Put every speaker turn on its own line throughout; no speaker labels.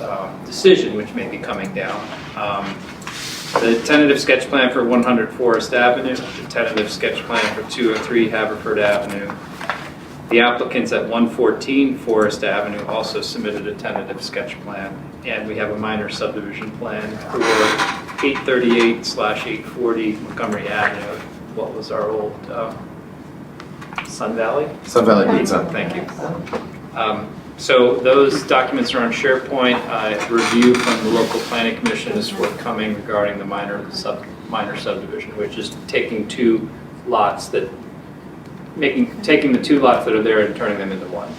um, decision, which may be coming down. Um, The tentative sketch plan for 100 Forest Avenue, the tentative sketch plan for 203 Haverford Avenue. The applicants at 114 Forest Avenue also submitted a tentative sketch plan, and we have a minor subdivision plan for 838 slash 840 Montgomery Avenue, what was our old uh, Sun Valley?
Sun Valley Pizza.
Thank you. Um, So those documents are on SharePoint. Uh, Review from the local planning commission is forthcoming regarding the minor sub, minor subdivision, which is taking two lots that, making, taking the two lots that are there and turning them into one.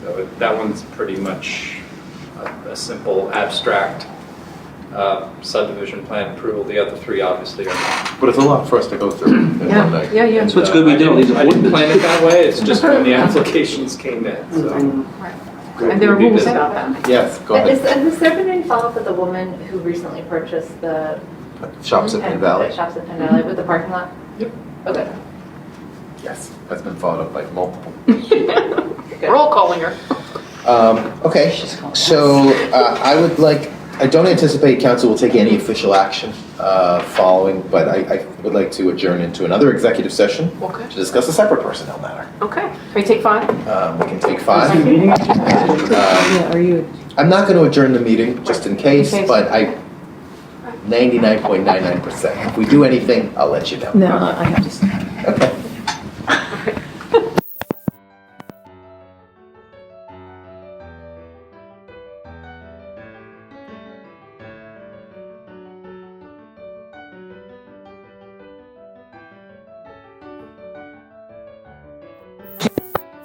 So that one's pretty much a, a simple abstract uh, subdivision plan approval. The other three obviously are not.
But it's a lot for us to go through in one
Yeah,
day.
yeah, yeah.
That's what's good we
And, uh,
do,
I
these
didn't- I didn't plan
appointments.
it that way. It's just when the applications came in, so.
And there are
We do
rules
that.
about that.
Yes, go
Has
ahead.
has there been any follow-up with the woman who recently purchased the?
Shops at Penn
Penn-
Valley.
Shops at Penn Valley with the parking lot?
Yep.
Okay.
Yes. That's been followed up by multiple.
Roll calling her.
Um, okay, so uh, I would like, I don't anticipate council will take any official action uh, following, but I, I would like to adjourn into another executive session
Okay.
to discuss a separate personnel matter.
Okay. Can we take five?
Um, we can take five. Um,
Yeah, are you,
I'm not going to adjourn the meeting just in case,
In case.
but I 99.99%. If we do anything, I'll let you know.
no, I have to stay.
Okay.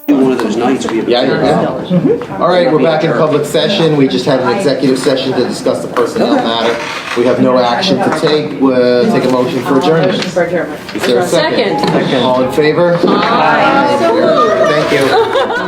One of those nights we have.
Yeah, yeah. All right, we're back in public session. We just had an executive session to discuss the personnel matter. We have no action to take. We'll take a motion for adjournment.
Motion for adjournment.
Is there a second?
Second.
All in favor?
Aye.
Thank you.